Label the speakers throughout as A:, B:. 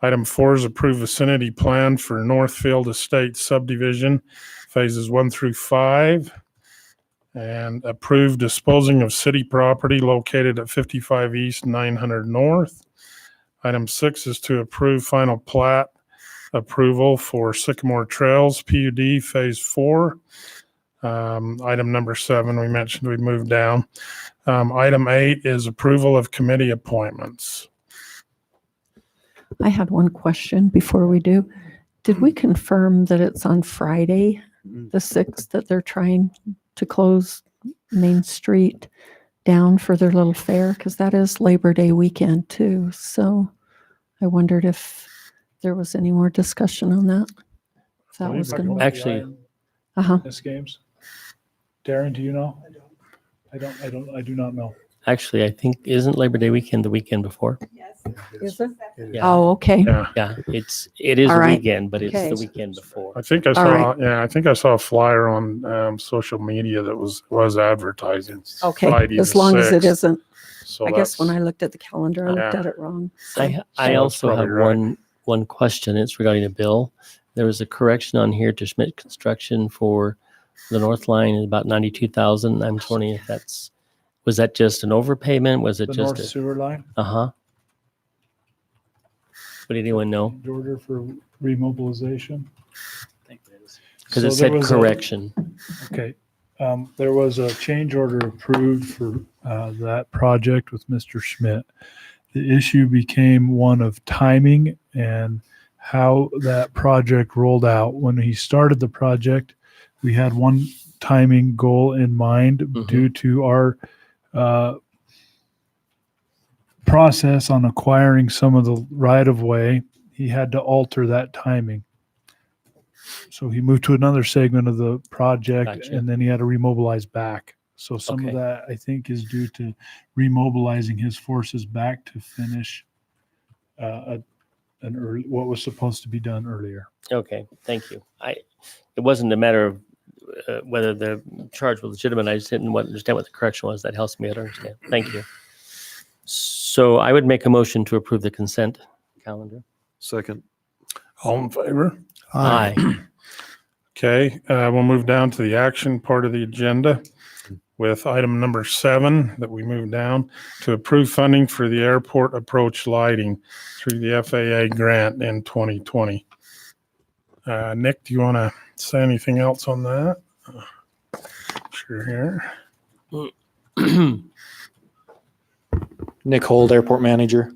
A: Item four is approved vicinity plan for Northfield Estate subdivision, phases one through five. And approved disposing of city property located at fifty-five east, nine hundred north. Item six is to approve final plat approval for Sycamore Trails PUD Phase Four. Um, item number seven, we mentioned we moved down. Um, item eight is approval of committee appointments.
B: I had one question before we do. Did
A: Hmm.
B: we confirm that it's on Friday,
A: Mm.
B: the 6th, that they're trying to close Main Street down for their little fair? Because that is Labor Day weekend too. So I wondered if there was any more discussion on that. If That
A: Believe
B: was
A: it
B: going
A: or
B: to,
A: not.
C: Actually-
B: uh-huh.
C: This games? Darren, do you know? I don't, I don't, I do not know.
D: Actually, I think isn't Labor Day weekend the weekend before?
E: Yes.
B: Is it?
D: Yeah.
B: Oh, okay.
A: Yeah,
D: Yeah,
C: Mm-hmm.
D: it's it is
B: All
D: a
B: right.
D: weekend, but it's
B: Okay.
D: the weekend before.
A: I think I
B: All
A: saw, yeah, I think I saw a flyer on, um, social media that was, was advertising. Friday
B: Okay,
A: the
B: as long as it
A: 6th,
B: isn't.
A: so
B: I guess when
A: that's-
B: I looked at the calendar, I looked
A: Yeah.
B: at it wrong.
D: I
A: So
D: I
A: that's
D: also have
A: probably right.
D: one one question. It's regarding a bill. There was a correction on here to Schmidt Construction for the North Line is about ninety two thousand. I'm just wondering if that's was that just an overpayment? Was it
C: The
D: just
C: North Sewer Line,
D: uh huh? Would anyone know?
C: the order for remobilization.
D: Because
C: So
D: it
C: there
D: said
C: was a-
D: correction.
C: Okay, um, there was a change order approved for, uh, that project with Mr. Schmidt. The issue became one of timing and how that project rolled out. When he started the project, we had one timing goal in mind
D: Mhm.
C: due to our, uh, process on acquiring some of the right of way. He had to alter that timing. So he moved to another segment of the project
D: Gotcha.
C: and then he had to remobilize back. So some of
D: Okay.
C: that I think is due to remobilizing his forces back to finish uh, a, an early, what was supposed to be done earlier.
D: Okay, thank you. I, it wasn't a matter of uh, whether the charge was legitimate. I just didn't wa- understand what the correction was. That helps me to understand. Thank you. So I would make a motion to approve the consent calendar.
F: Second.
A: All in favor?
D: Aye.
A: Okay, uh, we'll move down to the action part of the agenda with item number seven that we moved down to approve funding for the airport approach lighting through the FAA grant in 2020. Uh, Nick, do you want to say anything else on that? Sure here.
G: Nick Hold, Airport Manager.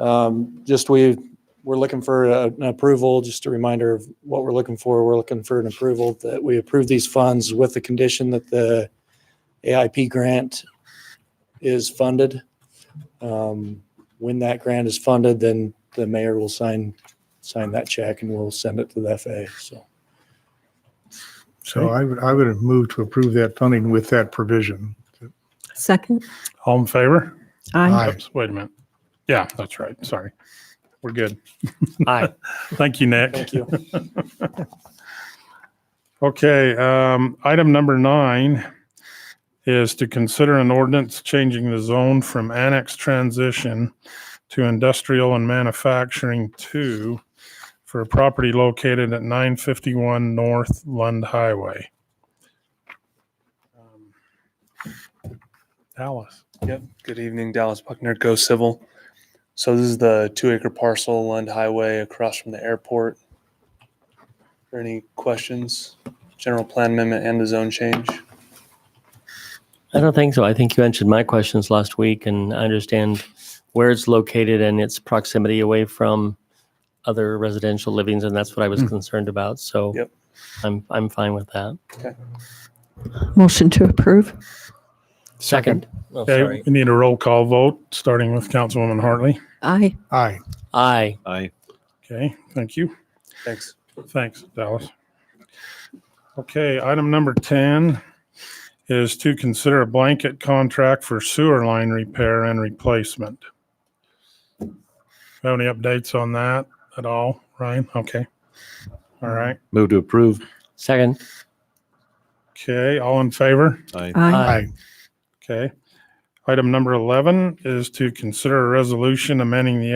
G: Um, Just we, we're looking for a- an approval, just a reminder of what we're looking for. We're looking for an approval that we approve these funds with the condition that the AIP grant is funded. Um, When that grant is funded, then the mayor will sign, sign that check and we'll send it to the FAA, so.
H: So I would, I would have moved to approve that funding with that provision.
B: Second,
A: All in favor?
B: aye.
H: Aye.
A: Oops, Wait a minute. Yeah, that's right. Sorry. We're good.
D: Aye.
A: Thank you, Nick.
G: Thank you.
A: Okay, um, item number nine is to consider an ordinance changing the zone from annex transition to industrial and manufacturing two for a property located at nine fifty-one North Lund Highway.
G: Um,
A: Alice,
I: Yep. Good evening, Dallas Buckner, Go Civil. So this is the two-acre parcel, Lund Highway, across from the airport. Are Any questions? General plan amendment and the zone change.
D: I don't think so. I think you answered my questions last week and I understand where it's located and its proximity away from other residential livings. And that's what I was concerned about. So
I: Yep.
D: I'm, I'm fine with that.
B: Motion to approve?
D: Second. Oh,
A: okay,
D: sorry.
A: we need a roll call vote, starting with Councilwoman Hartley.
B: Aye.
H: Aye.
D: Aye.
F: Aye.
A: Okay, thank you.
I: Thanks.
A: Thanks, Dallas. Okay, item number 10 is to consider a blanket contract for sewer line repair and replacement. Have any updates on that at all, Ryan? Okay. All right.
F: Move to approve.
D: Second.
A: Okay, all in favor?
F: Aye.
B: Aye.
H: Aye.
A: Okay. Item number 11 is to consider a resolution amending the